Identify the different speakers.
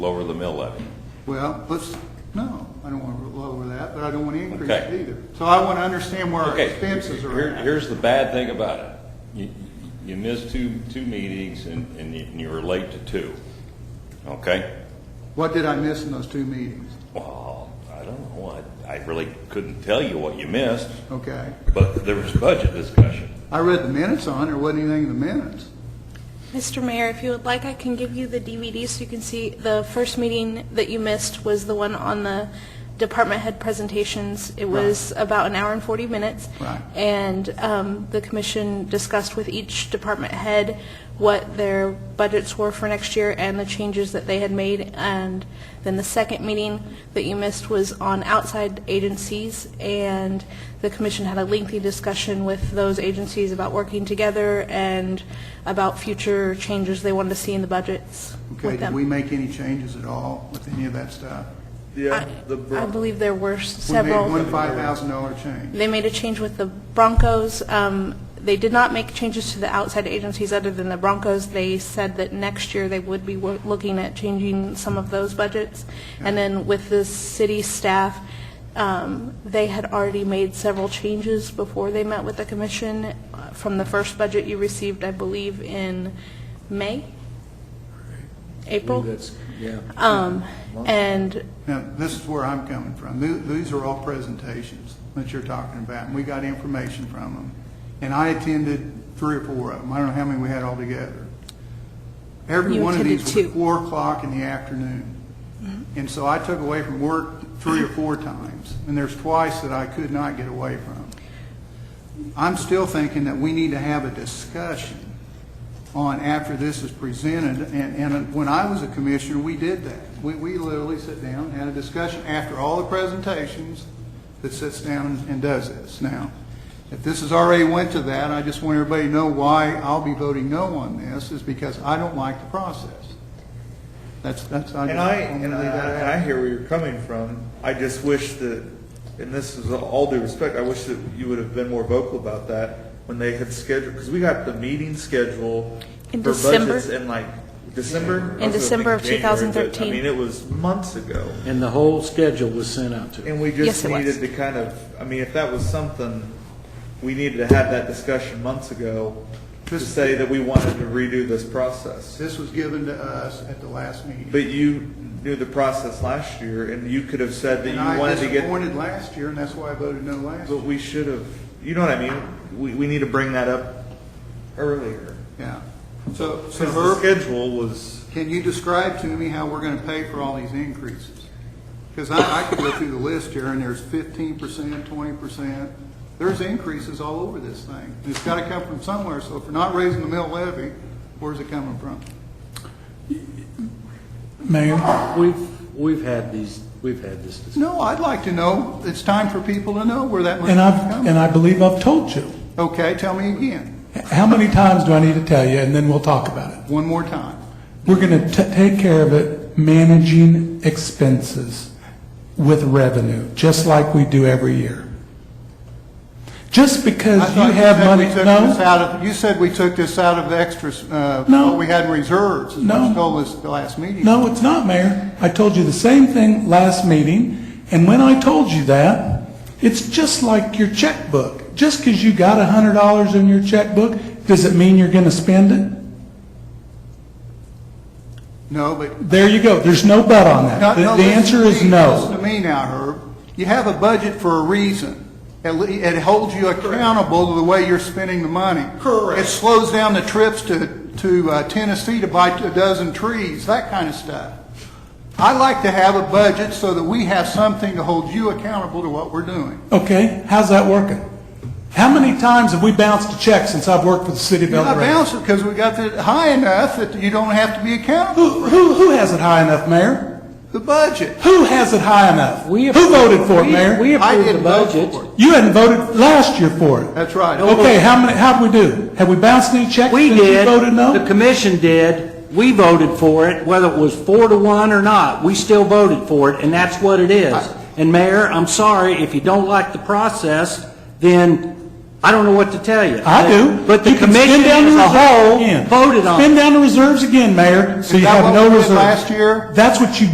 Speaker 1: lower the mill levy.
Speaker 2: Well, let's, no, I don't want to lower that, but I don't want to increase it
Speaker 1: Okay.
Speaker 2: either. So I want to understand where our
Speaker 1: Okay,
Speaker 2: expenses are
Speaker 1: here-
Speaker 2: at.
Speaker 1: Here's the bad thing about it. You, you missed two, two meetings and, and you- and you were late to two. Okay?
Speaker 2: What did I miss in those two meetings?
Speaker 1: Well, I don't know. I, I really couldn't tell you what you missed,
Speaker 2: Okay.
Speaker 1: but there was budget discussion.
Speaker 2: I read the minutes on, there wasn't anything in the minutes.
Speaker 3: Mr. Mayor, if you would like, I can give you the DVD so you can see. The first meeting that you missed was the one on the department head presentations. It was about an hour and 40 minutes.
Speaker 2: Right.
Speaker 3: And um, the commission discussed with each department head what their budgets were for next year and the changes that they had made. And then the second meeting that you missed was on outside agencies, and the commission had a lengthy discussion with those agencies about working together and about future changes they wanted to see in the budgets
Speaker 2: Okay,
Speaker 3: with
Speaker 2: did we
Speaker 3: them.
Speaker 2: make any changes at all with any of that stuff?
Speaker 3: I I believe there were several.
Speaker 2: We made one five thousand dollar change.
Speaker 3: They made a change with the Broncos. Um, They did not make changes to the outside agencies other than the Broncos. They said that next year they would be wo- looking at changing some of those budgets. And then with the city staff, um, they had already made several changes before they met with the commission uh, from the first budget you received, I believe, in May, April.
Speaker 4: That's, yeah.
Speaker 3: Um, And
Speaker 2: Now, this is where I'm coming from. Th- These are all presentations that you're talking about, and we got information from them. And I attended three or four of them. I don't know how many we had altogether. Every
Speaker 3: You
Speaker 2: one of these
Speaker 3: attended
Speaker 2: was
Speaker 3: two.
Speaker 2: four o'clock in the afternoon. And so I took away from work three or four times, and there's twice that I could not get away from. I'm still thinking that we need to have a discussion on after this is presented, and, and when I was a commissioner, we did that. We, we literally sit down, and had a discussion after all the presentations, that sits down and does this. Now, if this has already went to that, I just want everybody to know why I'll be voting no on this, is because I don't like the process. That's, that's, I
Speaker 5: And
Speaker 2: just
Speaker 5: I,
Speaker 2: want to leave
Speaker 5: and I,
Speaker 2: that
Speaker 5: and
Speaker 2: out.
Speaker 5: I hear where you're coming from. I just wish that, and this is all due respect, I wish that you would have been more vocal about that when they had scheduled, because we got the meeting schedule
Speaker 3: In
Speaker 5: for
Speaker 3: December.
Speaker 5: budgets in like December.
Speaker 3: In
Speaker 5: I was gonna
Speaker 3: December of
Speaker 5: think January, but,
Speaker 3: 2013.
Speaker 5: I mean, it was months ago.
Speaker 4: And the whole schedule was sent out to them.
Speaker 5: And we
Speaker 3: Yes,
Speaker 5: just
Speaker 3: it was.
Speaker 5: needed to kind of, I mean, if that was something, we needed to have that discussion months ago to
Speaker 2: This-
Speaker 5: say that we wanted to redo this process.
Speaker 2: This was given to us at the last meeting.
Speaker 5: But you knew the process last year, and you could have said that
Speaker 2: And
Speaker 5: you
Speaker 2: I
Speaker 5: wanted to get.
Speaker 2: disappointed last year, and that's why I voted no last
Speaker 5: But
Speaker 2: year.
Speaker 5: we should have, you know what I mean? We, we need to bring that up earlier.
Speaker 2: Yeah. So, so
Speaker 5: Because
Speaker 2: Herb,
Speaker 5: the schedule was,
Speaker 2: Can you describe to me how we're going to pay for all these increases? Because I, I could go through the list here, and there's fifteen percent, twenty percent. There's increases all over this thing. And It's got to come from somewhere, so if we're not raising the mill levy, where's it coming from?
Speaker 6: Mayor,
Speaker 4: We've, we've had these, we've had this discussion.
Speaker 2: No, I'd like to know. It's time for people to know where that money's
Speaker 6: and I've,
Speaker 2: coming.
Speaker 6: and I believe I've told you.
Speaker 2: Okay, tell me again,
Speaker 6: How many times do I need to tell you, and then we'll talk about it?
Speaker 2: one more time.
Speaker 6: We're going to take care of it managing expenses with revenue, just like we do every year. Just because
Speaker 2: I thought
Speaker 6: you have
Speaker 2: said
Speaker 6: money,
Speaker 2: we took this
Speaker 6: no,
Speaker 2: out of- You said we took this out of the extras, uh,
Speaker 6: No.
Speaker 2: what we had in reserves, is what
Speaker 6: No.
Speaker 2: you told us at the last meeting.
Speaker 6: no, it's not, Mayor. I told you the same thing last meeting, and when I told you that, it's just like your checkbook. Just because you got $100 in your checkbook, does it mean you're going to spend it?
Speaker 2: No, but
Speaker 6: There you go. There's no but on
Speaker 2: No,
Speaker 6: that.
Speaker 2: no,
Speaker 6: The the
Speaker 2: listen
Speaker 6: answer
Speaker 2: to
Speaker 6: is
Speaker 2: me.
Speaker 6: no.
Speaker 2: Listen to me now, Herb. You have a budget for a reason. It le- It holds you accountable to the way you're spending the money. Correct. It slows down the trips to, to uh, Tennessee to buy a dozen trees, that kind of stuff. I like to have a budget so that we have something to hold you accountable to what we're doing.
Speaker 6: Okay, how's that working? How many times have we bounced a check since I've worked for the city of
Speaker 2: You're
Speaker 6: El
Speaker 2: not
Speaker 6: Dorado?
Speaker 2: bouncing because we got it high enough that you don't have to be accountable.
Speaker 6: Who, who, who has it high enough, Mayor?
Speaker 2: The budget.
Speaker 6: Who has it high enough?
Speaker 4: We
Speaker 6: Who
Speaker 4: approved-
Speaker 6: voted for it,
Speaker 4: we-
Speaker 6: Mayor?
Speaker 4: We
Speaker 2: I
Speaker 4: approved the
Speaker 2: didn't vote
Speaker 4: budget.
Speaker 2: for it.
Speaker 6: You hadn't voted last year for it.
Speaker 2: That's right.
Speaker 6: Okay, how many, how'd we do? Have we bounced any checks?
Speaker 4: We
Speaker 6: since
Speaker 4: did.
Speaker 6: You voted
Speaker 4: The
Speaker 6: no?
Speaker 4: commission did. We voted for it, whether it was four to one or not. We still voted for it, and that's what it is. And Mayor, I'm sorry, if you don't like the process, then I don't know what to tell you.
Speaker 6: I do.
Speaker 4: But the
Speaker 6: You can spend
Speaker 4: commission
Speaker 6: down the
Speaker 4: as a
Speaker 6: reserve
Speaker 4: whole
Speaker 6: again.
Speaker 4: voted on it.
Speaker 6: Spend down the reserves again, Mayor,
Speaker 2: Is
Speaker 6: so you
Speaker 2: that
Speaker 6: have
Speaker 2: what
Speaker 6: no
Speaker 2: we did
Speaker 6: reserves.
Speaker 2: last year?
Speaker 6: That's what you